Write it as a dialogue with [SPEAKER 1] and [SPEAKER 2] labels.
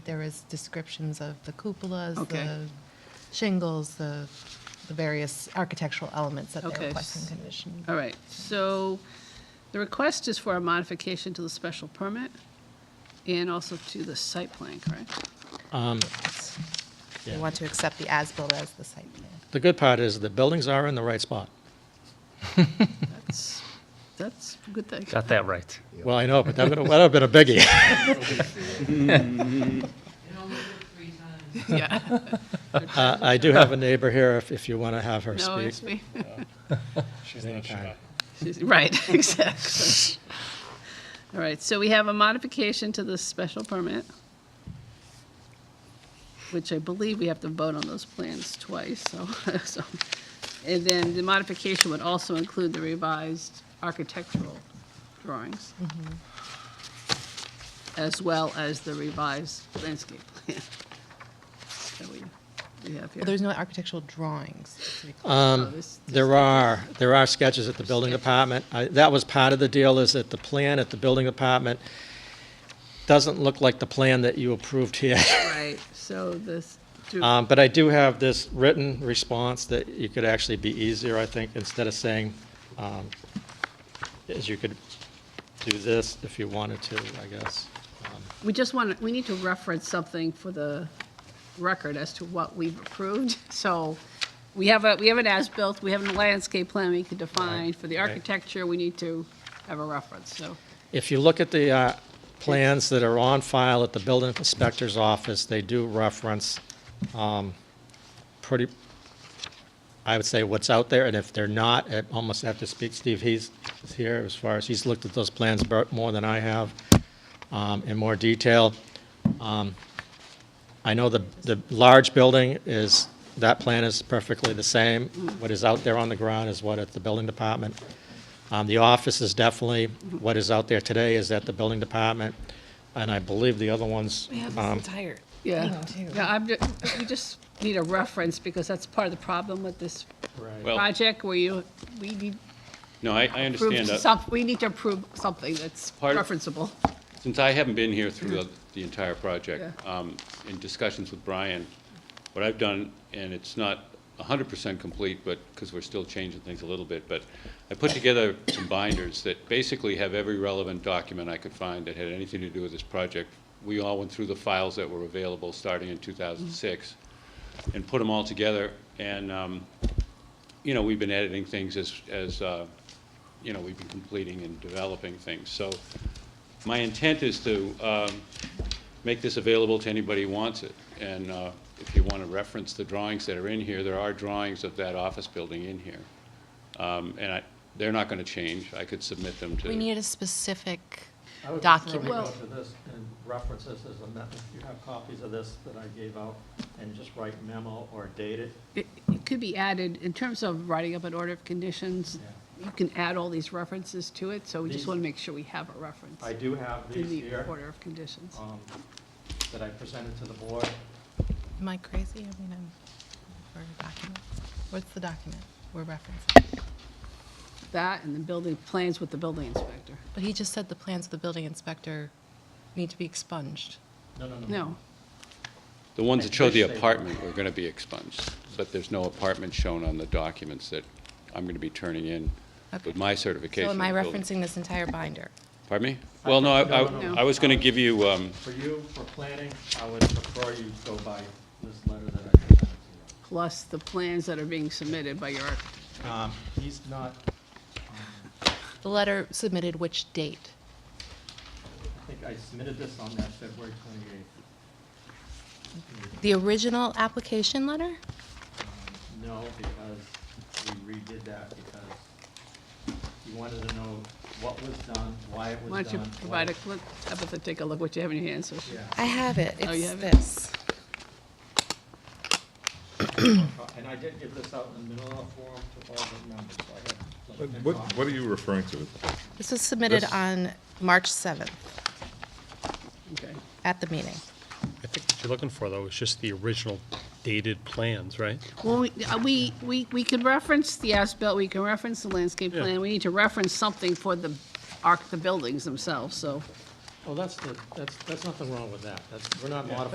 [SPEAKER 1] There was descriptions of the cupolas,
[SPEAKER 2] Okay.
[SPEAKER 1] the shingles, the, the various architectural elements that
[SPEAKER 2] Okay. Uh,
[SPEAKER 1] they're requesting condition.
[SPEAKER 2] All right, so the request is for a modification to the special permit and also to the site plan, correct?
[SPEAKER 1] They
[SPEAKER 3] Um, Yeah.
[SPEAKER 1] want to accept the as-built as the site plan.
[SPEAKER 3] The good part is the buildings are in the right spot.
[SPEAKER 2] That's, that's a good thing.
[SPEAKER 4] Got that right.
[SPEAKER 3] Well, I know, but that would have, that would have been a biggie.
[SPEAKER 2] Yeah,
[SPEAKER 3] Uh, I do have a neighbor here, if, if you want to have her
[SPEAKER 2] no,
[SPEAKER 3] speak.
[SPEAKER 2] it's me.
[SPEAKER 3] She's not shy.
[SPEAKER 2] Right, exactly. All right, so we have a modification to the special permit, which I believe we have to vote on those plans twice, so, so. And then the modification would also include the revised architectural drawings, as well as the revised landscape plan that we, we have here.
[SPEAKER 1] Well, there's no architectural drawings.
[SPEAKER 2] Oh, this-
[SPEAKER 3] There are, there are sketches at the building department. I- That was part of the deal, is that the plan at the building department doesn't look like the plan that you approved here.
[SPEAKER 2] Right, so this, do-
[SPEAKER 5] Uh,
[SPEAKER 3] Um, But I do have this written response that you could actually be easier, I think, instead of saying, um, is you could do this if you wanted to, I guess.
[SPEAKER 2] We just want, to we need to reference something for the record as to what we've approved. So we have a, we have an as-built, we have a landscape plan we could define. For the
[SPEAKER 3] Right.
[SPEAKER 2] architecture, we need to have a reference, so.
[SPEAKER 3] If you look at the uh, plans that are on file at the building inspector's office, they do reference um, pretty, I would say, what's out there, and if they're not, I almost have to speak, Steve, he's he's here as far as, he's looked at those plans bur- more than I have um, in more detail. Um, I know the, the large building is, that plan is perfectly the same. What is out there on the ground is what at the building department. Um, The office is definitely, what is out there today is at the building department, and I believe the other ones. um,
[SPEAKER 2] Yeah,
[SPEAKER 1] too.
[SPEAKER 2] yeah, I'm, ju- we just need a reference because that's part of the problem with this
[SPEAKER 5] Well-
[SPEAKER 2] project where you, we need
[SPEAKER 5] No, I, I
[SPEAKER 2] proof,
[SPEAKER 5] understand uh, that.
[SPEAKER 2] some- we need to approve something that's
[SPEAKER 5] Part of-
[SPEAKER 2] referenceable.
[SPEAKER 5] Since I haven't been here through the- the entire project,
[SPEAKER 2] Yeah.
[SPEAKER 5] um, in discussions with Brian, what I've done, and it's not hundred percent complete, but, because we're still changing things a little bit, but I put together some binders that basically have every relevant document I could find that had anything to do with this project. We all went through the files that were available starting in two thousand and six and put them all together. And, um, you know, we've been editing things as, as, uh, you know, we've been completing and developing things. So my intent is to um, make this available to anybody who wants it. And uh, if you want to reference the drawings that are in here, there are drawings of that office building in here. Um, And I, they're not going to change. I could submit them to.
[SPEAKER 6] We need a specific
[SPEAKER 7] I would prefer we
[SPEAKER 6] document.
[SPEAKER 7] go
[SPEAKER 2] Well-
[SPEAKER 7] to this and reference this as a memo. If you have copies of this that I gave out, and just write memo or date it.
[SPEAKER 2] It it could be added, in terms of writing up an order of conditions, you can add all these references to it, so we just
[SPEAKER 7] These-
[SPEAKER 2] want to make sure we have a reference
[SPEAKER 7] I do have
[SPEAKER 2] in
[SPEAKER 7] these
[SPEAKER 2] the
[SPEAKER 7] here
[SPEAKER 2] order of conditions.
[SPEAKER 7] um, that I presented to the board.
[SPEAKER 1] Am I crazy? I mean, I'm, for a document. What's the document we're referencing?
[SPEAKER 2] That and the building, plans with the building inspector.
[SPEAKER 1] But he just said the plans of the building inspector need to be expunged.
[SPEAKER 7] No, no, no.
[SPEAKER 2] No,
[SPEAKER 5] The ones that show the
[SPEAKER 7] Which they-
[SPEAKER 5] apartment are going to be expunged, but there's no apartment shown on the documents that I'm going to be turning in
[SPEAKER 1] Okay.
[SPEAKER 5] with my certification.
[SPEAKER 1] So am I
[SPEAKER 5] of building.
[SPEAKER 1] referencing this entire binder?
[SPEAKER 5] Pardon me? Well, no, I,
[SPEAKER 7] No, no,
[SPEAKER 5] I-
[SPEAKER 2] no.
[SPEAKER 5] I was going to give you, um,
[SPEAKER 7] For you, for planning, I would prefer you go by this letter that I presented to
[SPEAKER 2] plus the plans that are being submitted by your, arch-
[SPEAKER 3] Um,
[SPEAKER 7] you. He's not,
[SPEAKER 1] The letter submitted which date?
[SPEAKER 7] I think I submitted this on that February twenty-eighth.
[SPEAKER 1] The original application letter?
[SPEAKER 7] No, because we redid that because you wanted to know what was done, why it was done.
[SPEAKER 2] why don't you
[SPEAKER 7] why-
[SPEAKER 2] provide a, look, up at the, take a look what you have in your hands. so-
[SPEAKER 7] Yeah.
[SPEAKER 1] I have it.
[SPEAKER 2] Oh, you
[SPEAKER 1] It's
[SPEAKER 2] have it?
[SPEAKER 1] this.
[SPEAKER 7] And I did give this out in the middle of the forum to all the members, so I
[SPEAKER 8] What,
[SPEAKER 7] have. like,
[SPEAKER 8] what- what are you referring to?
[SPEAKER 1] This was submitted
[SPEAKER 8] This-
[SPEAKER 1] on March 7th
[SPEAKER 2] Okay.
[SPEAKER 1] at the meeting.
[SPEAKER 4] I think what you're looking for, though, is just the original dated plans, right?
[SPEAKER 2] Well, we, uh, we, we we could reference the as-built, we can reference the landscape
[SPEAKER 4] Yeah.
[SPEAKER 2] plan, we need to reference something for the arc, the buildings themselves, so.
[SPEAKER 3] Well, that's the, that's, that's nothing wrong with that. That's, we're not modifying